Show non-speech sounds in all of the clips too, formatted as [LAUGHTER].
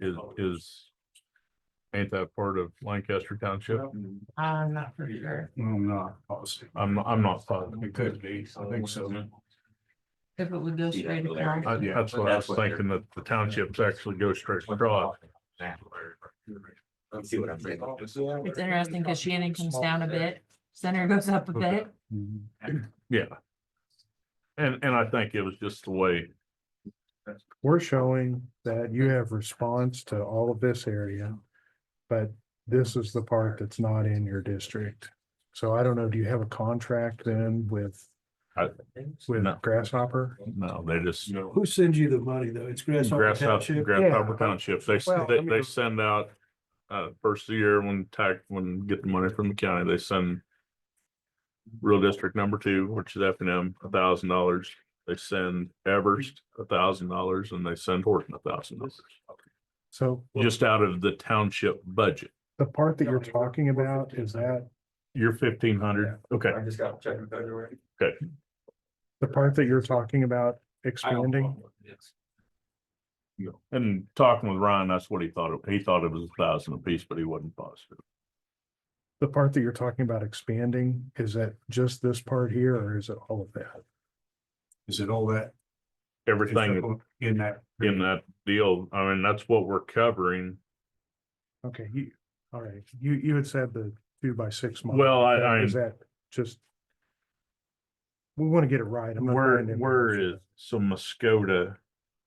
is, is. Ain't that part of Lancaster Township? I'm not for sure. I'm not positive. I'm, I'm not positive. It could be, I think so. Mm-hmm. If it would go straight across. I- That's what I was thinking, that the townships actually go straight across. Let's see what I'm saying. It's interesting because Shannon comes down a bit, Center goes up a bit. Yeah. And, and I think it was just the way, we're showing that you have response to all of this area. But this is the part that's not in your district. So I don't know, do you have a contract then with, with No. Grasshopper? no, they just Who sends you the money though? It's Grasshopper grasshopper, Township? grasshopper Yeah. township. They, Well, I they, mean- they send out. Uh, first of the year when tax, when get the money from the county, they send. Rural District Number Two, which is F and M, a thousand dollars. They send Everest a thousand dollars and they send Horton a thousand dollars. So Just out of the township budget. the part that you're talking about, is that You're fifteen hundred, okay. I just got checked in February. the part that you're talking about expanding? And talking with Ryan, that's what he thought. it- He thought it was a thousand apiece, but he wasn't positive. The part that you're talking about expanding, is that just this part here or is it all of that? Is it all that? Everything In that. in that deal, I mean, that's what we're covering. Okay, you, all right, you, you had said the two by six. model. Well, I- I- Is that just? We want to get it right. I'm not Where, trying to- where is, so Muskota,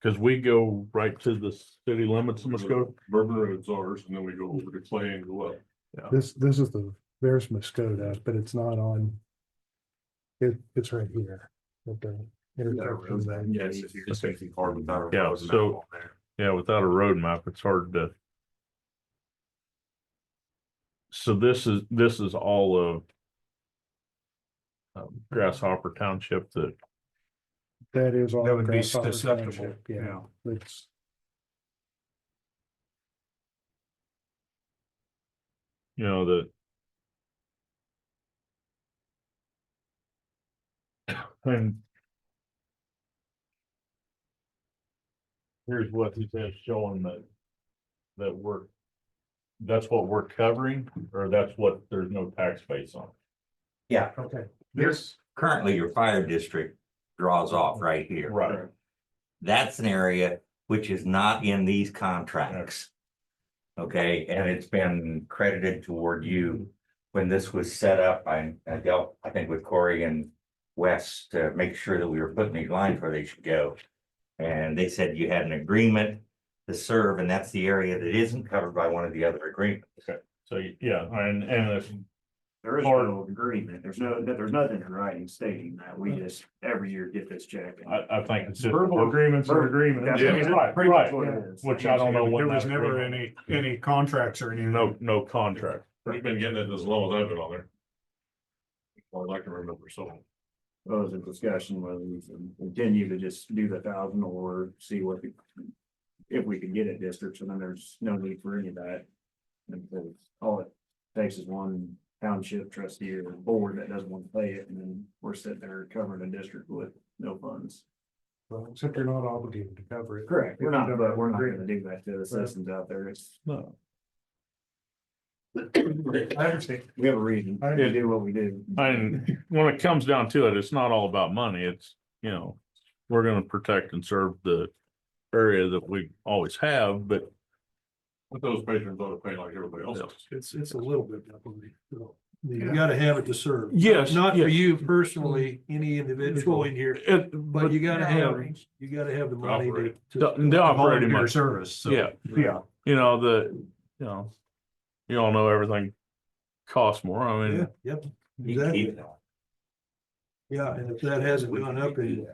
cause we go right to the city limits of Muskota. Bourbon Road's ours, and then we go over to Clay and go up. This, this is the, there's Muskota, but it's not on. It, it's right here. at the intersection of that. Yes, if you're just making hard without. a Yeah, road map so- on there. Yeah, without a road map, it's hard to. So this is, this is all of. um, Grasshopper Township that, That is all. That would be Grasshopper susceptible, Township, yeah. Yeah, it's, you know, that. [COUGHS] And. Here's what he says showing that. That we're. That's what we're covering, or that's what, there's no tax base on. Yeah, okay, there's currently your fire district draws off right here. Right. That's an area which is not in these contracts. Okay, and it's been credited toward you. When this was set up, I, I dealt, I think with Corey and Wes to make sure that we were putting these lines where they should go. And they said you had an agreement to serve, and that's the area that isn't covered by one of the other agreements. So, yeah, and, and if There is Or- no agreement. There's no, there's nothing in writing stating that. We just every year get this check. and- I, I think it's just Verbal- agreements are verbal- agreements. That's- Yeah, that's right, pretty much right. what it is. Which I don't know what. There was that never any, agreement- any contracts or anything. No, no contract. We've been getting it as long as I've been on there. Well, I can remember, so. Well, It was a discussion whether we can continue to just do the thousand or see what we- if we can get a district, so then there's no need for any of that. And so All it takes is one township trustee or board that doesn't want to pay it, and then we're sitting there covering a district with no funds. well, except you're not obligated to cover it. Correct. We're not, but we're not gonna do that to the citizens out there. It's. [COUGHS] No. I understand. We have a reason I- to do what we do. And when it comes down to it, it's not all about money. It's, you know, we're gonna protect and serve the area that we always have, but But those patrons ought to pay like everybody else. does. It's, it's a little bit. definitely, so. You gotta have it to serve. Yes, Not for yes. you personally, any individual in here, it, but but you gotta have, Outrage. you gotta have the money to. Operate. to- The- the volunteer operating money. Service, so. yeah, Yeah. you know, the, you know, you all know everything costs more. I mean, Yeah, yep, You can keep exactly. it all. Yeah, and if that hasn't gone up in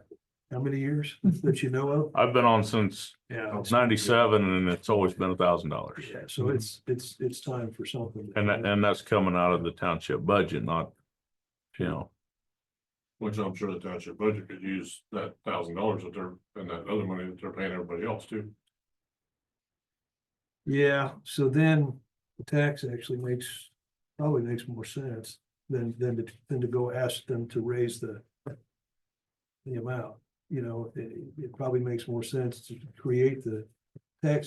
how many years that you know of? I've been on since Yeah. ninety-seven and it's always been a thousand dollars. Yeah, so it's, it's, it's time for something. Mm-hmm. And that, and that's coming out of the township budget, not, you know, Which I'm sure the township budget could use that thousand dollars that they're, and that other money that they're paying everybody else too. Yeah, so then the tax actually makes, probably makes more sense than, than to, than to go ask them to raise the the amount, you know, it, it probably makes more sense to create the tax